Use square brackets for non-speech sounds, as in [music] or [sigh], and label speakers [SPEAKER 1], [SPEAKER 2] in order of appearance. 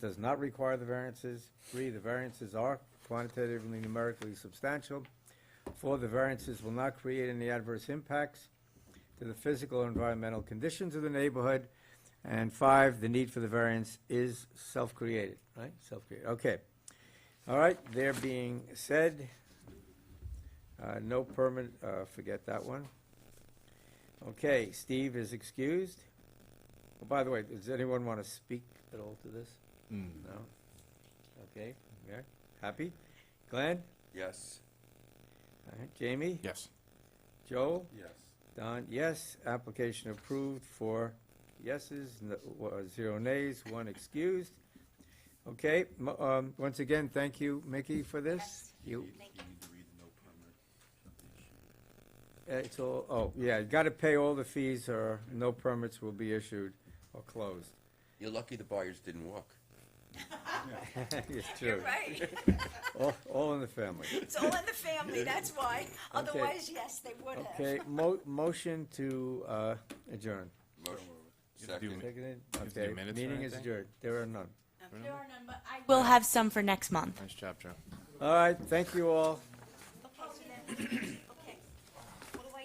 [SPEAKER 1] does not require the variances. Three, the variances are quantitatively numerically substantial. Four, the variances will not create any adverse impacts to the physical or environmental conditions of the neighborhood. And five, the need for the variance is self-created, right? Self-created, okay. All right, there being said, uh, no permit, uh, forget that one. Okay, Steve is excused. Oh, By the way, does anyone want to speak at all to this? No? Okay, Mayor, happy? Glenn?
[SPEAKER 2] Yes.
[SPEAKER 1] All right, Jamie?
[SPEAKER 3] Yes.
[SPEAKER 1] Joel?
[SPEAKER 2] Yes.
[SPEAKER 1] Don, yes. Application approved for yeses, no- uh, zero nays, one excused. Okay, mo- um, once again, thank you, Mickey, for this.
[SPEAKER 4] Yes.
[SPEAKER 1] You,
[SPEAKER 4] Thank
[SPEAKER 2] You need to read the no permit.
[SPEAKER 1] uh, it's all, oh, yeah, you gotta pay all the fees or no permits will be issued or closed. [laughs]
[SPEAKER 2] You're lucky the buyers didn't walk.
[SPEAKER 1] It's
[SPEAKER 4] You're
[SPEAKER 1] true.
[SPEAKER 4] right.
[SPEAKER 1] All, all in the family.
[SPEAKER 4] It's all in the family, that's why. Otherwise, yes, they would have.
[SPEAKER 1] Okay, mo- motion to, uh, adjourn.
[SPEAKER 2] Motion.
[SPEAKER 3] You have to do
[SPEAKER 2] Second.
[SPEAKER 1] Seconded?
[SPEAKER 3] have to do
[SPEAKER 1] Okay,
[SPEAKER 3] minutes or
[SPEAKER 1] meeting is
[SPEAKER 3] anything?
[SPEAKER 1] adjourned. There are none.
[SPEAKER 4] There are none, but I
[SPEAKER 5] We'll have some for next month.
[SPEAKER 3] Nice job, Joe.
[SPEAKER 1] All right, thank you all.
[SPEAKER 4] will.